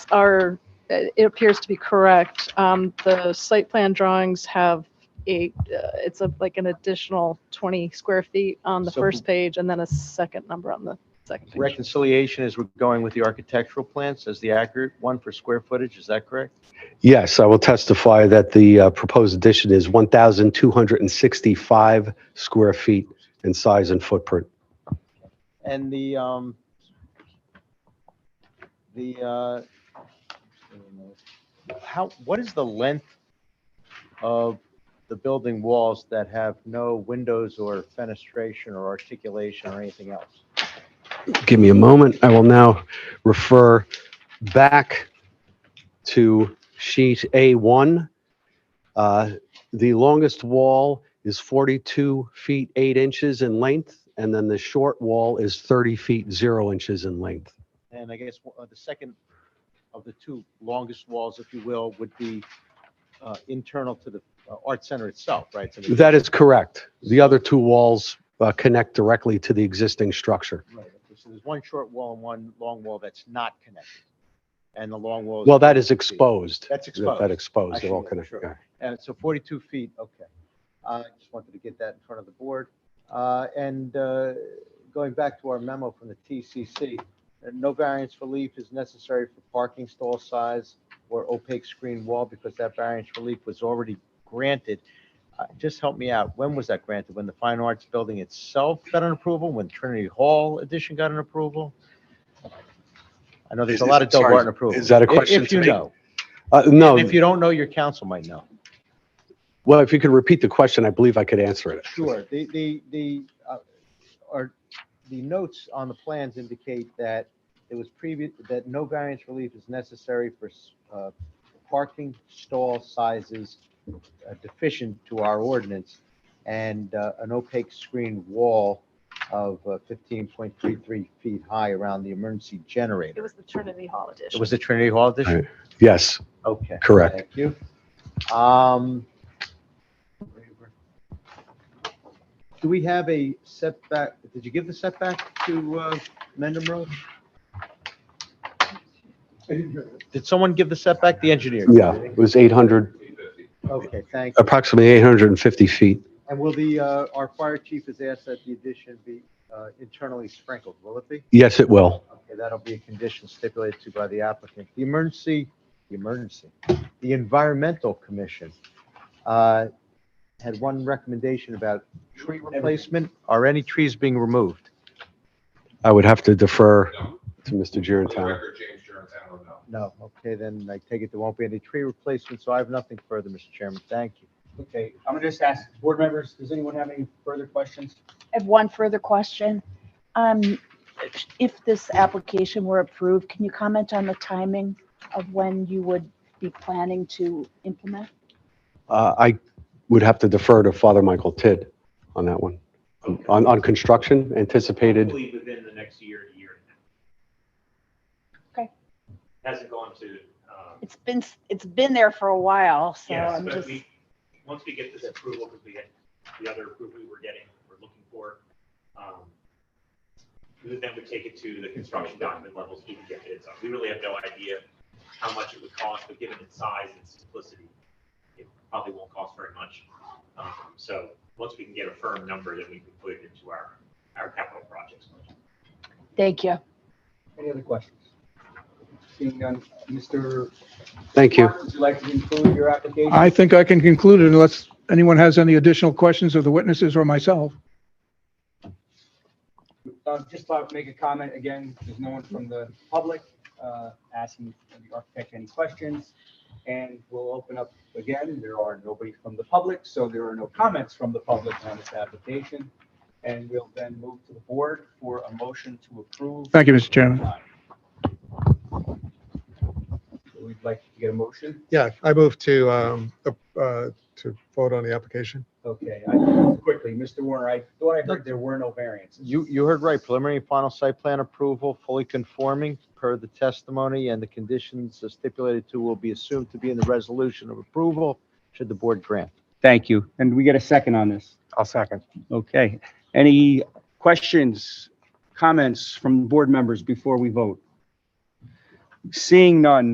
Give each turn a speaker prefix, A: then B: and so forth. A: are, it appears to be correct. Um, The site plan drawings have a, uh, it's a- like an additional 20 square feet on the
B: So-
A: first page and then a second number on the second page.
B: Reconciliation is we're going with the architectural plans as the accurate one for square footage, is that correct?
C: Yes, I will testify that the uh, proposed addition is 1,265 square feet in size and footprint.
B: And the, um, the, uh, how, what is the length of the building walls that have no windows or fenestration or articulation or anything else?
C: Give me a moment. I will now refer back to sheet A1. Uh, The longest wall is 42 feet 8 inches in length, and then the short wall is 30 feet 0 inches in length.
B: And I guess uh, the second of the two longest walls, if you will, would be uh, internal to the uh, art center itself, right? So the-
C: That is correct. The other two walls uh, connect directly to the existing structure.
B: Right, okay, so there's one short wall and one long wall that's not connected. And the long wall.
C: Well, that is
B: 42 feet.
C: exposed.
B: That's
C: That- That
B: exposed.
C: exposed, they're all
B: Actually,
C: connected.
B: sure. And so 42 feet, okay. Uh, I just wanted to get that in front of the board. Uh, And uh, going back to our memo from the TCC, uh, no variance relief is necessary for parking stall size or opaque screen wall because that variance relief was already granted. Uh, Just help me out, when was that granted? When the Fine Arts Building itself got an approval? When Trinity Hall addition got an approval? I know there's a lot of double
C: Sorry,
B: art in approval.
C: is that a question
B: If
C: to
B: you
C: me?
B: know.
C: Uh, No,
B: And if you don't know, your council might know.
C: well, if you could repeat the question, I believe I could answer it.
B: Sure, the, the, the, uh, or the notes on the plans indicate that it was previous, that no variance relief is necessary for, uh, parking stall sizes uh, deficient to our ordinance and, uh, an opaque screen wall of uh, fifteen point three three feet high around the emergency
A: It
B: generator.
A: was the Trinity Hall edition.
B: It was the Trinity Hall
C: All
B: addition?
C: right. Yes,
B: Okay.
C: Correct.
B: Thank you. Um, do we have a setback? Did you give the setback to, uh, Mendham Road? Did someone give the setback? The engineer?
C: yeah, it was 800,
B: Okay, thank you.
C: approximately 850 feet.
B: And will the, uh, our fire chief has asked that the addition be, uh, internally sprinkled. Will it be?
C: Yes, it will.
B: Okay, that'll be a condition stipulated to by the applicant. The emergency, the emergency, the environmental commission uh, had one recommendation about tree replacement. Are any trees being removed?
C: I would have to defer
D: No.
C: to
D: For
C: Mr.
D: the
C: Girantano.
D: record, James Gerentano, no.
B: No, okay, then I take it there won't be any tree replacement, so I have nothing further, Mr. Chairman. Thank you.
E: Okay, I'm gonna just ask board members, does anyone have any further questions?
F: I have one further question. Um, If this application were approved, can you comment on the timing of when you would be planning to implement?
C: Uh, I would have to defer to Father Michael Tidd on that one. On, on construction, anticipated,
G: Hopefully within the next year, to year and a half.
F: Okay.
G: Hasn't gone to, um,
F: It's been, it's been there for a while, so
G: yes,
F: uh, I'm
G: but
F: just,
G: we, once we get this approval, because we had the other approval we were getting, we're looking for, um, we then would take it to the construction document levels, we can get bids on. We really have no idea how much it would cost, but given its size and simplicity, it probably won't cost very much. Um, so once we can get a firm number, then we can put it into our, our capital projects budget.
F: thank you.
E: Any other questions? Seeing none, Mr.
C: thank you.
E: Would you like to conclude your application?
H: I think I can conclude it unless anyone has any additional questions of the witnesses or myself.
E: Uh, just thought I'd make a comment again, there's no one from the public, uh, asking the architect any questions. And we'll open up again, there are nobody from the public, so there are no comments from the public on this application. And we'll then move to the board for a motion to approve.
H: Thank you, Mr. Chairman.
E: We'd like to get a motion,
I: Yeah, I move to, um, uh, to vote on the application.
E: okay, I, quickly, Mr. Warner, I thought I heard there were no variances.
B: You, you heard right, preliminary and final site plan approval, fully conforming per the testimony and the conditions as stipulated to will be assumed to be in the resolution of approval should the board grant.
E: Thank you. And we get a second on this.
I: I'll second.
E: Okay. Any questions, comments from board members before we vote? Seeing none,